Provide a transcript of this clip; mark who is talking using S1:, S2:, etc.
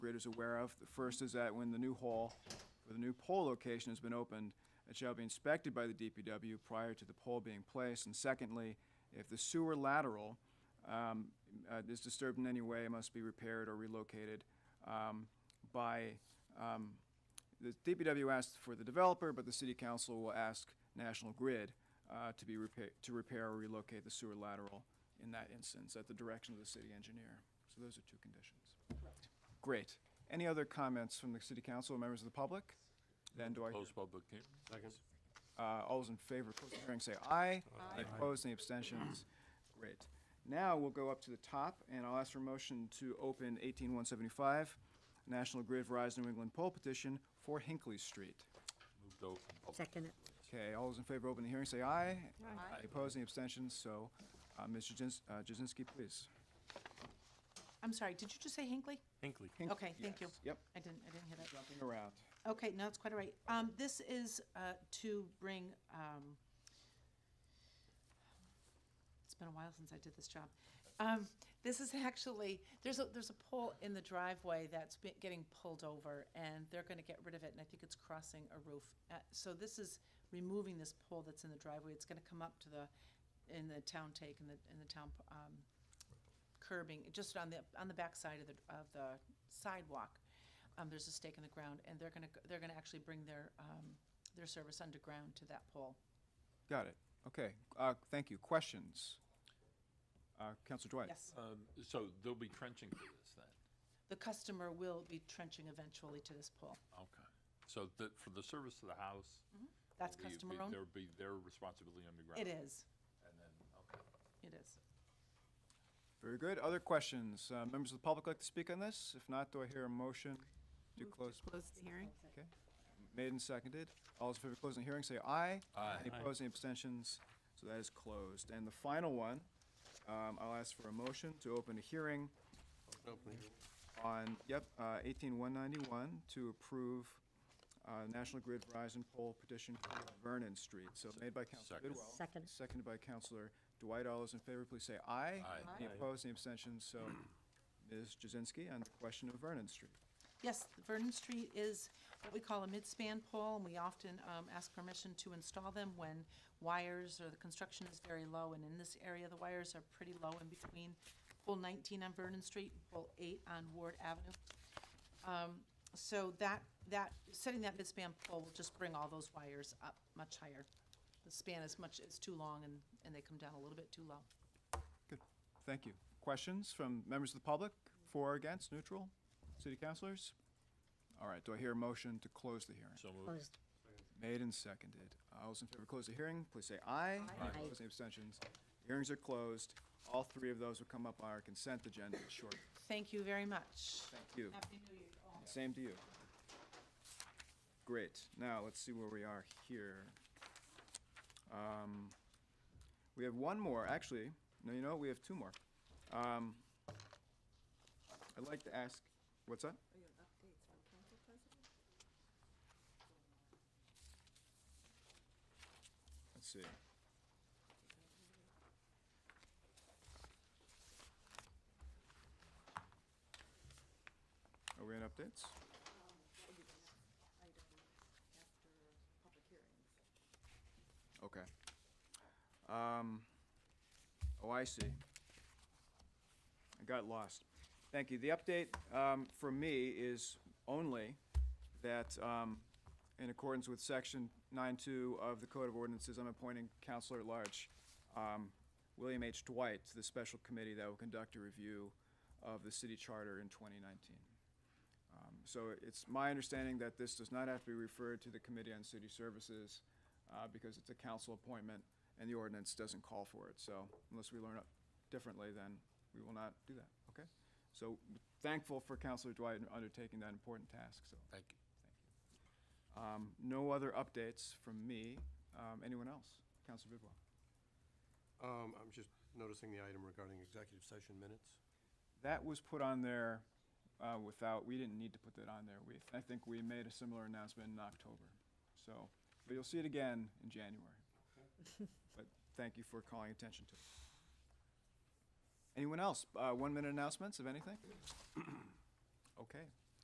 S1: administrators aware of. The first is that when the new hall for the new pole location has been opened, it shall be inspected by the DPW prior to the pole being placed. And secondly, if the sewer lateral um, uh, is disturbed in any way, it must be repaired or relocated um, by, um, the DPW asked for the developer, but the city council will ask National Grid uh, to be repair, to repair or relocate the sewer lateral in that instance, at the direction of the city engineer. So those are two conditions. Great. Any other comments from the city council or members of the public? Then do I,
S2: Close public hearing. Second.
S1: uh, all those in favor of closing the hearing, say aye. Aye. Opposed, any abstentions? Great. Now we'll go up to the top, and I'll ask for a motion to open eighteen one seventy-five, National Grid Verizon New England poll petition for Hinckley Street.
S2: Move to open public.
S3: Second it.
S1: Okay, all those in favor, open the hearing, say aye.
S3: Aye.
S1: Opposed, any abstentions? So, uh, Mr. Jins- uh, Jazinski, please.
S4: I'm sorry, did you just say Hinckley?
S2: Hinckley.
S1: Hinc-
S4: Okay, thank you.
S1: yes. Yep,
S4: I didn't, I didn't hear that.
S1: jumping around.
S4: Okay, no, that's quite all right. Um, this is, uh, to bring, um, it's been a while since I did this job. Um, this is actually, there's a, there's a pole in the driveway that's be- getting pulled over and they're gonna get rid of it and I think it's crossing a roof. Uh, so this is removing this pole that's in the driveway. It's gonna come up to the, in the town take, in the, in the town, um, curbing, just on the, on the backside of the, of the sidewalk. Um, there's a stake in the ground and they're gonna, go- they're gonna actually bring their, um, their service underground to that pole.
S1: Got it. Okay, uh, thank you. Questions? Uh, Counselor Dwight?
S4: Yes.
S2: Um, So they'll be trenching for this then?
S4: The customer will be trenching eventually to this pole.
S2: Okay. So that, for the service to the house? will be-
S4: That's
S2: be-
S4: customer owned?
S2: There'll be their responsibility underground?
S4: It is,
S2: And then, okay.
S4: it is.
S1: Very good. Other questions? Uh, Members of the public like to speak on this? If not, do I hear a motion to close?
S3: Close the hearing?
S1: Okay. Made and seconded. All those in favor of closing the hearing, say aye.
S2: Aye.
S1: Any opposed, any abstentions? So that is closed. And the final one, um, I'll ask for a motion to open a hearing on, yep, uh, eighteen one ninety-one to approve, uh, National Grid Verizon poll petition for Vernon Street. So made by Counselor
S2: Second.
S1: Bidwell.
S3: Second.
S1: Seconded by Counselor Dwight. All those in favor, please say aye.
S2: Aye.
S1: Any opposed, any abstentions? So Ms. Jazinski on the question of Vernon Street.
S4: Yes, Vernon Street is what we call a midspan pole, and we often um, ask permission to install them when wires or the construction is very low, and in this area, the wires are pretty low in between pole 19 on Vernon Street, pole 8 on Ward Avenue. Um, So that, that, setting that midspan pole will just bring all those wires up much higher. The span is much, is too long, and, and they come down a little bit too low.
S1: Good, thank you. Questions from members of the public, for or against, neutral, city councilors? All right, do I hear a motion to close the hearing?
S2: So moved.
S3: Close,
S1: Made and seconded. All those in favor, to close the hearing, please say aye.
S3: Aye.
S1: Opposed, any abstentions? Hearings are closed. All three of those will come up on our consent agenda shortly.
S4: Thank you very much.
S1: Thank you.
S4: Happy New Year all.
S1: Same to you. Great. Now, let's see where we are here. Um, We have one more, actually. No, you know, what? we have two more. Um, I'd like to ask, what's that? Let's see. Are we in updates? Okay. Um, oh, I see. I got lost. Thank you. The update, um, for me is only that, um, in accordance with section nine-two of the Code of Ordinances, I'm appointing Counselor at Large, um, William H. Dwight to the special committee that will conduct a review of the city charter in twenty nineteen. Um, So it's my understanding that this does not have to be referred to the Committee on City Services uh, because it's a council appointment and the ordinance doesn't call for it. So unless we learn it differently, then we will not do that, okay? So thankful for Counselor Dwight undertaking that important task, so.
S2: Thank you.
S1: um, No other updates from me. Um, Anyone else? Counselor Bidwell?
S5: Um, I'm just noticing the item regarding executive session minutes.
S1: That was put on there uh, without, we didn't need to put that on there. We, I think we made a similar announcement in October. So, but you'll see it again in January. But thank you for calling attention to it. Anyone else? Uh, One-minute announcements of anything? Okay,